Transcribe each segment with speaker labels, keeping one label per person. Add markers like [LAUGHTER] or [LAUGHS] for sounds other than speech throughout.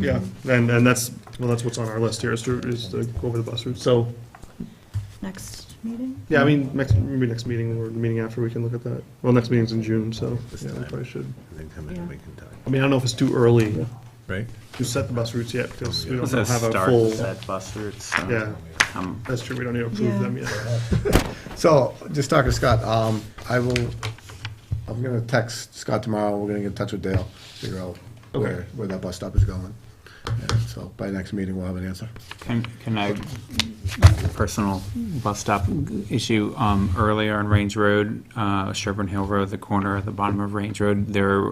Speaker 1: Yeah, and, and that's, well, that's what's on our list here, is to, is to go over the bus route. So,
Speaker 2: Next meeting?
Speaker 1: yeah, I mean, next, maybe next meeting or the meeting after, we can look at that. Well, next meeting's in June, so, yeah, we probably should.
Speaker 3: And then come in and
Speaker 2: Yeah.
Speaker 3: we can talk,
Speaker 1: I mean, I don't know if it's too early
Speaker 3: right?
Speaker 1: to set the bus routes yet, because we don't
Speaker 4: Doesn't
Speaker 1: have a
Speaker 4: start
Speaker 1: full,
Speaker 4: Set uh, bus routes. so,
Speaker 1: yeah,
Speaker 4: um,
Speaker 1: that's true, we don't need to approve
Speaker 2: Yeah.
Speaker 1: them yet.
Speaker 5: So, just talking to Scott, um, I will, I'm gonna text Scott tomorrow, we're gonna get in touch with Dale, figure out
Speaker 1: Okay.
Speaker 5: where, where that bus stop is going. And so by next meeting, we'll have an answer.
Speaker 4: Can can I, personal bus stop issue, um, earlier on Range Road, uh, Sherburne Hill Road, the corner at the bottom of Range Road, there,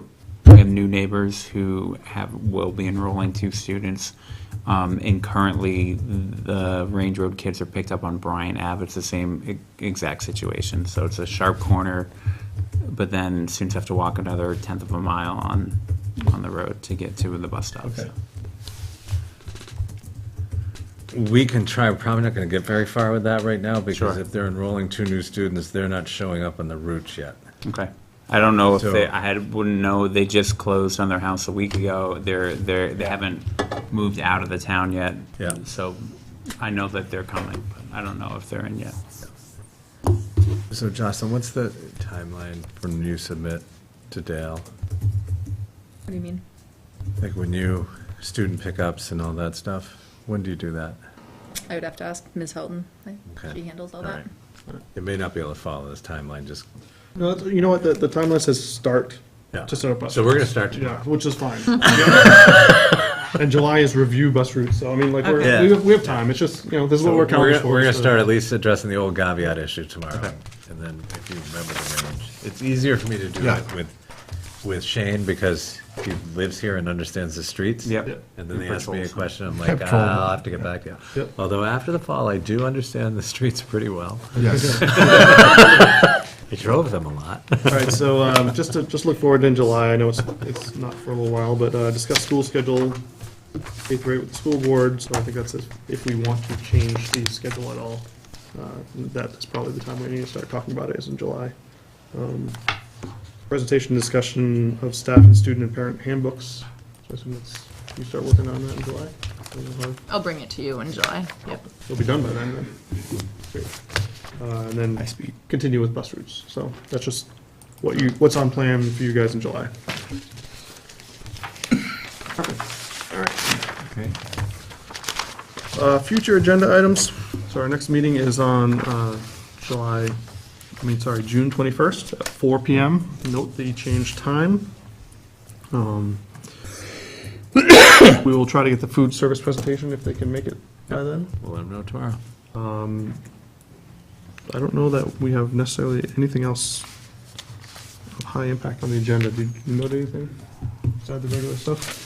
Speaker 4: we have new neighbors who have, will be enrolling two students. Um, And currently, the Range Road kids are picked up on Bryan Ave. It's the same e- exact situation. So it's a sharp corner, but then students have to walk another tenth of a mile on, on the road to get to the bus stop. so.
Speaker 1: Okay.
Speaker 3: We can try, we're probably not gonna get very far with that right now, because
Speaker 4: Sure.
Speaker 3: if they're enrolling two new students, they're not showing up on the routes yet.
Speaker 4: Okay. I don't know if
Speaker 3: So-
Speaker 4: they, I had, wouldn't know, they just closed on their house a week ago. They're, they're, they haven't moved out of the town yet.
Speaker 3: Yeah.
Speaker 4: So I know that they're coming, but I don't know if they're in yet.
Speaker 3: So Jocelyn, what's the timeline when you submit to Dale?
Speaker 6: What do you mean?
Speaker 3: Like when you, student pickups and all that stuff, when do you do that?
Speaker 6: I would have to ask Ms. Houghton. Like,
Speaker 3: Okay.
Speaker 6: She handles all
Speaker 3: right.
Speaker 6: that.
Speaker 3: You may not be able to follow this timeline, just,
Speaker 1: No, that's- you know what, the, the timeline says start,
Speaker 3: yeah.
Speaker 1: to set up bus.
Speaker 3: So we're gonna
Speaker 1: routes.
Speaker 3: start
Speaker 1: Yeah,
Speaker 3: tomorrow.
Speaker 1: which is fine. And July is review bus routes, so I mean, like,
Speaker 3: Okay.
Speaker 1: we're, we have, we have time, it's just, you know, this is
Speaker 3: So
Speaker 1: what we're counting for.
Speaker 3: We're gonna
Speaker 1: so-
Speaker 3: start at least addressing the old Gaviot issue tomorrow, and then if you remember the range. It's easier for me to do
Speaker 5: Yeah.
Speaker 3: it with, with Shane, because he lives here and understands the streets.
Speaker 4: Yep.
Speaker 1: Yeah.
Speaker 3: And then they ask me a
Speaker 4: Controls.
Speaker 1: [LAUGHS]
Speaker 3: question, I'm like, ah, I'll have to get back to you.
Speaker 1: Yep.
Speaker 3: Although after the fall, I do understand the streets pretty well.
Speaker 5: Yes.
Speaker 3: [LAUGHS] I drove them a lot.
Speaker 1: All right, so um, just to, just look forward in July, I know it's, it's not for a little while, but uh, discuss school schedule, eighth grade with the school board, so I think that's it. if we want to change the schedule at all. uh, That's probably the time we need to start talking about it, is in July. Um, Presentation discussion of staff and student and parent handbooks, so I assume that's, you start working on that in July? We'll have-
Speaker 6: I'll bring it to you in July. Yep.
Speaker 1: It'll be done by then, then. Great. Uh, And then
Speaker 4: speed.
Speaker 1: continue with bus routes, so that's just what you, what's on plan for you guys in July.
Speaker 4: Okay.
Speaker 1: Uh, Future agenda items, so our next meeting is on uh, July, I mean, sorry, June 21st at 4 PM. Note the changed time. Um, [COUGHS] We will try to get the food service presentation if they can make it by then.
Speaker 3: We'll let them know tomorrow.
Speaker 1: I don't know that we have necessarily anything else of high impact on the agenda. Did you note anything besides the regular stuff?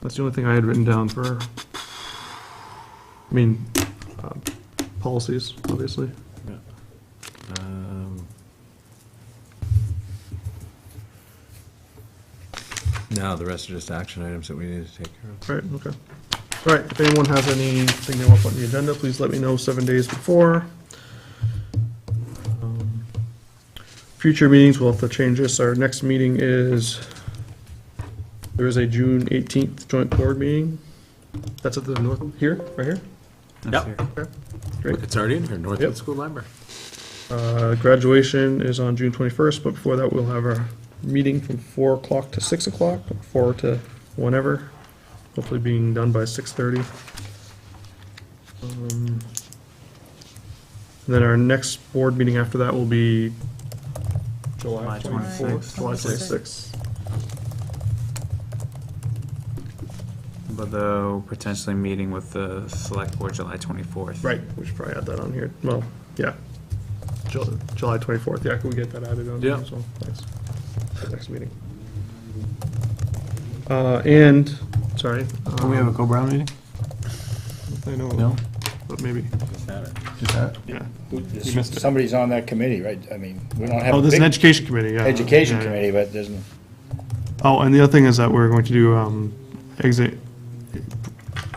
Speaker 1: That's the only thing I had written down for, I mean, uh, policies, obviously.
Speaker 3: Um, No, the rest are just action items that we need to take care of.
Speaker 1: Right, okay. All right, if anyone has anything they want to put on the agenda, please let me know seven days before. Um, Future meetings, we'll have to change this. Our next meeting is, there is a June 18th joint board meeting. That's at the north, here, right here?
Speaker 3: Yep.
Speaker 1: Okay.
Speaker 3: Look, It's already in here, Northwood
Speaker 1: Yep.
Speaker 3: School Library.
Speaker 1: Uh, Graduation is on June 21st, but before that, we'll have our meeting from 4 o'clock to 6 o'clock, 4 to whenever, hopefully being done by 6:30. Um, and Then our next board meeting after that will be July
Speaker 4: July
Speaker 1: 24th.
Speaker 4: 26th.
Speaker 1: July 26th.
Speaker 4: But though potentially meeting with the select board July 24th.
Speaker 1: Right, we should probably add that on here. Well, yeah. Ju- July 24th, yeah, can we get that added on? there
Speaker 3: Yeah.
Speaker 1: as well? Thanks. For the Next meeting. Uh, and, sorry.
Speaker 7: Do we have a
Speaker 1: um,
Speaker 7: co-brown meeting?
Speaker 1: I know.
Speaker 7: No?
Speaker 1: But maybe,
Speaker 7: Just that?
Speaker 1: yeah.
Speaker 8: Somebody's on that committee, right? I mean, we don't have
Speaker 1: Oh,
Speaker 8: a
Speaker 1: there's an
Speaker 8: big
Speaker 1: education committee, yeah.
Speaker 8: education
Speaker 1: Yeah, yeah.
Speaker 8: committee, but there's, n-
Speaker 1: Oh, and the other thing is that we're going to do, um, exit,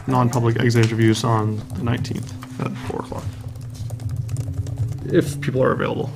Speaker 1: non-public exit interviews on the nineteenth at four o'clock. If people are available.